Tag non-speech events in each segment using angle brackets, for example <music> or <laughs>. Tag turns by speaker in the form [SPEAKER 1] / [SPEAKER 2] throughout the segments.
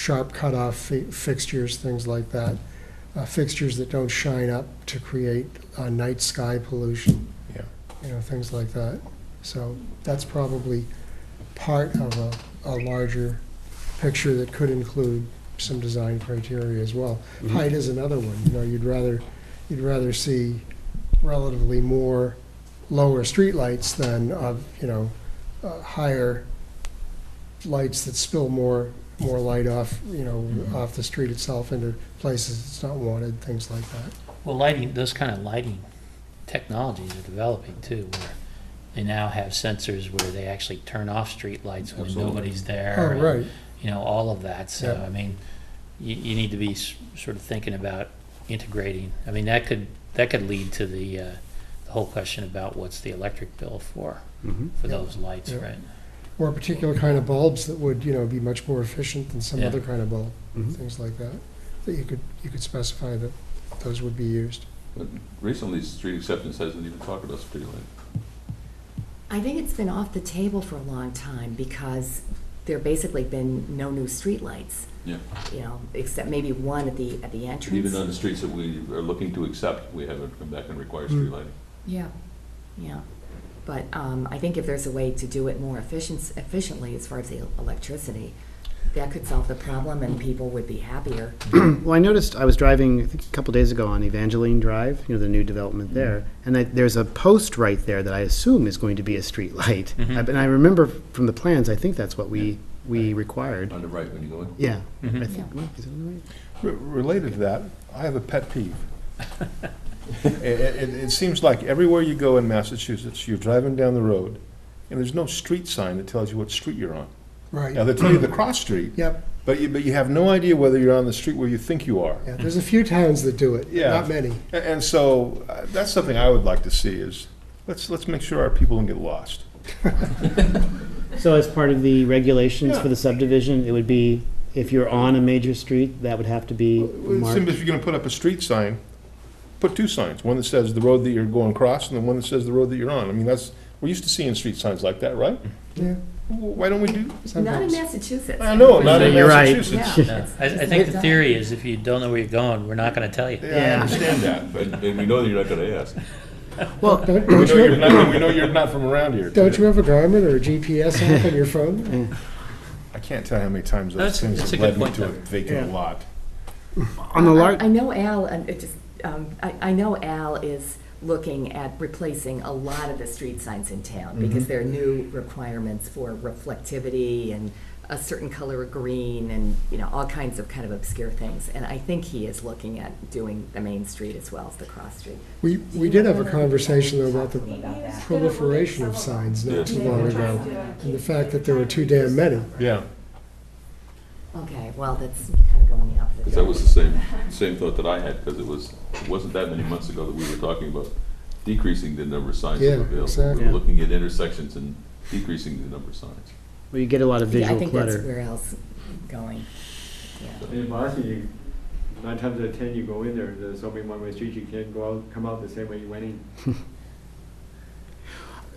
[SPEAKER 1] sharp cutoff fi- fixtures, things like that. Uh, Fixtures that don't shine up to create uh, night sky pollution.
[SPEAKER 2] Yeah.
[SPEAKER 1] You know, things like that. So that's probably part of a, a larger picture that could include some design criteria as well. Height is another one, you know, you'd rather, you'd rather see relatively more lower streetlights than, uh, you know, uh, higher lights that spill more, more light off, you know,
[SPEAKER 3] Mhm.
[SPEAKER 1] off the street itself into places it's not wanted, things like that.
[SPEAKER 3] Well, lighting, those kind of lighting technologies are developing too, where they now have sensors where they actually turn off streetlights when
[SPEAKER 2] Absolutely.
[SPEAKER 3] nobody's there.
[SPEAKER 1] Oh,
[SPEAKER 3] and,
[SPEAKER 1] right,
[SPEAKER 3] You know, all of that, so,
[SPEAKER 1] Yeah.
[SPEAKER 3] I mean, you, you need to be s- sort of thinking about integrating. I mean, that could, that could lead to the, uh, the whole question about what's the electric bill for,
[SPEAKER 2] Mhm.
[SPEAKER 3] for
[SPEAKER 1] Yeah.
[SPEAKER 3] those lights,
[SPEAKER 1] Yeah.
[SPEAKER 3] right?
[SPEAKER 1] or a particular kind of bulbs that would, you know, be much more efficient than some
[SPEAKER 3] Yeah.
[SPEAKER 1] other kind of bulb,
[SPEAKER 2] Mhm.
[SPEAKER 1] things like that. That you could, you could specify that those would be used.
[SPEAKER 4] But recently, street acceptance hasn't even talked about streetlight.
[SPEAKER 5] I think it's been off the table for a long time because there basically been no new streetlights,
[SPEAKER 4] Yeah.
[SPEAKER 5] you know, except maybe one at the, at the entrance.
[SPEAKER 4] Even on the streets that we are looking to accept, we haven't come back and required
[SPEAKER 1] Hmm.
[SPEAKER 4] streetlighting.
[SPEAKER 5] Yeah, yeah. But um, I think if there's a way to do it more efficient, efficiently as far as the electricity, that could solve the problem and people would be happier.
[SPEAKER 6] <clears throat> Well, I noticed I was driving I think, a couple days ago on Evangeline Drive, you know, the new development there, and I, there's a post right there that I assume is going to be a street light.
[SPEAKER 3] Mhm.
[SPEAKER 6] I- And I remember from the plans, I think that's what we, we required.
[SPEAKER 4] On the right when you go in.
[SPEAKER 6] Yeah. I
[SPEAKER 3] Mhm.
[SPEAKER 6] think, is it on the right?
[SPEAKER 2] Re- Related to that, I have a pet peeve. <laughs> It, it, it seems like everywhere you go in Massachusetts, you're driving down the road, and there's no street sign that tells you what street you're on. Now,
[SPEAKER 1] Right,
[SPEAKER 2] they tell you the cross street,
[SPEAKER 1] yep,
[SPEAKER 2] but you, but you have no idea whether you're on the street where you think you are.
[SPEAKER 1] yeah, there's a few towns that do it,
[SPEAKER 2] Yeah.
[SPEAKER 1] not many.
[SPEAKER 2] A- And, so, uh, that's something I would like to see is, let's, let's make sure our people don't get lost.
[SPEAKER 6] So as part of the regulations
[SPEAKER 2] Yeah.
[SPEAKER 6] for the subdivision, it would be, if you're on a major street, that would have to be
[SPEAKER 2] It seems
[SPEAKER 6] marked.
[SPEAKER 2] if you're gonna put up a street sign, put two signs, one that says the road that you're going across, and the one that says the road that you're on. I mean, that's, we're used to seeing street signs like that, right?
[SPEAKER 1] Yeah,
[SPEAKER 2] W- Why don't we do,
[SPEAKER 5] Not in
[SPEAKER 1] sometimes.
[SPEAKER 5] Massachusetts.
[SPEAKER 2] I know, not in
[SPEAKER 6] You're right.
[SPEAKER 2] Massachusetts.
[SPEAKER 5] Yeah.
[SPEAKER 3] Yeah. I, I
[SPEAKER 5] It's
[SPEAKER 3] think
[SPEAKER 5] not
[SPEAKER 3] the
[SPEAKER 5] done.
[SPEAKER 3] theory is if you don't know where you're going, we're not gonna tell you.
[SPEAKER 2] Yeah, I
[SPEAKER 6] Yeah.
[SPEAKER 2] understand that, but
[SPEAKER 4] And, and we know that you're not gonna ask.
[SPEAKER 6] Well,
[SPEAKER 1] Don't,
[SPEAKER 2] we
[SPEAKER 1] don't
[SPEAKER 2] know you're
[SPEAKER 1] you,
[SPEAKER 2] not, we know you're not from around here.
[SPEAKER 1] don't you have a Garmin or a GPS app on your phone?
[SPEAKER 2] I can't tell how many times those
[SPEAKER 3] That's-
[SPEAKER 2] things
[SPEAKER 3] that's
[SPEAKER 2] have
[SPEAKER 3] a
[SPEAKER 2] led
[SPEAKER 3] good
[SPEAKER 2] me
[SPEAKER 3] point,
[SPEAKER 2] to a
[SPEAKER 3] though.
[SPEAKER 2] vacant
[SPEAKER 6] Yeah.
[SPEAKER 2] lot.
[SPEAKER 6] on the
[SPEAKER 5] I-
[SPEAKER 6] large,
[SPEAKER 5] I know Al, and it just, um, I, I know Al is looking at replacing a lot of the street signs in town
[SPEAKER 6] Mm-hmm.
[SPEAKER 5] because there are new requirements for reflectivity and a certain color of green and, you know, all kinds of kind of obscure things. And I think he is looking at doing the main street as well as the cross street.
[SPEAKER 1] We, we did have a conversation though about the
[SPEAKER 5] About that.
[SPEAKER 1] proliferation of signs
[SPEAKER 4] Yeah.
[SPEAKER 1] not too long ago, and the fact that there were too damn many.
[SPEAKER 2] Yeah.
[SPEAKER 5] Okay, well, that's kind of going the opposite.
[SPEAKER 4] Because that was the
[SPEAKER 5] direction.
[SPEAKER 4] same, same thought that I had, because it was, it wasn't that many months ago that we were talking about decreasing the number of signs that
[SPEAKER 1] Yeah,
[SPEAKER 4] were available. We
[SPEAKER 1] exactly.
[SPEAKER 4] were looking at intersections and decreasing the number of signs.
[SPEAKER 6] where you get a lot of
[SPEAKER 5] Yeah, I
[SPEAKER 6] visual
[SPEAKER 5] think that's
[SPEAKER 6] clutter.
[SPEAKER 5] where Al's going. Yeah.
[SPEAKER 7] In Boston, you, nine times out of ten, you go in there, there's only one-way street, you can't go out, come out the same way you went in.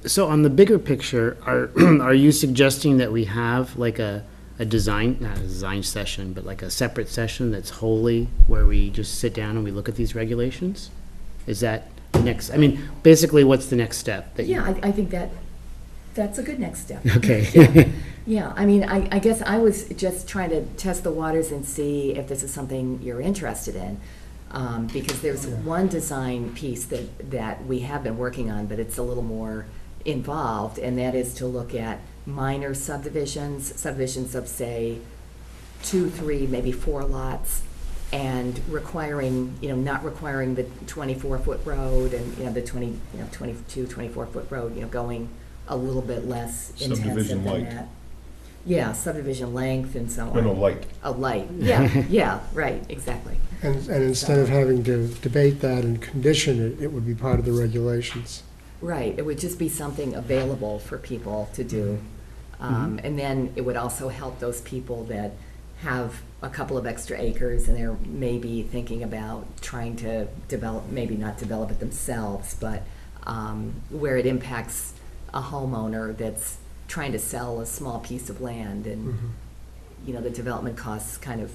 [SPEAKER 6] So on the bigger picture, are, <clears throat> are you suggesting that we have like a, a design, not a design session, but like a separate session that's wholly where we just sit down and we look at these regulations? Is that the next, I mean, basically, what's the next step? that you-
[SPEAKER 5] Yeah, I, I think that, that's a good next
[SPEAKER 6] <laughs>
[SPEAKER 5] step.
[SPEAKER 6] Okay.
[SPEAKER 5] Yeah, I mean, I, I guess I was just trying to test the waters and see if this is something you're interested in. Um, because there's one design piece that, that we have been working on, but it's a little more involved, and that is to look at minor subdivisions, subdivisions of, say, two, three, maybe four lots, and requiring, you know, not requiring the twenty-four foot road and, you know, the twenty, you know, twenty-two, twenty-four foot road, you know, going a little bit less intensive
[SPEAKER 2] Subdivision
[SPEAKER 5] than
[SPEAKER 2] light.
[SPEAKER 5] that. Yeah, subdivision length and so
[SPEAKER 2] No, no,
[SPEAKER 5] on.
[SPEAKER 2] light.
[SPEAKER 5] A light, <laughs> yeah, yeah, right, exactly.
[SPEAKER 1] And, and instead of having to debate that and condition it, it would be part of the regulations.
[SPEAKER 5] Right, it would just be something available for people to do. Um, And then it would also help those people that have a couple of extra acres and they're maybe thinking about trying to develop, maybe not develop it themselves, but um, where it
[SPEAKER 1] Mm-hmm.
[SPEAKER 5] Mm-hmm. impacts a homeowner that's trying to sell a small piece of land and, you know, the development costs kind of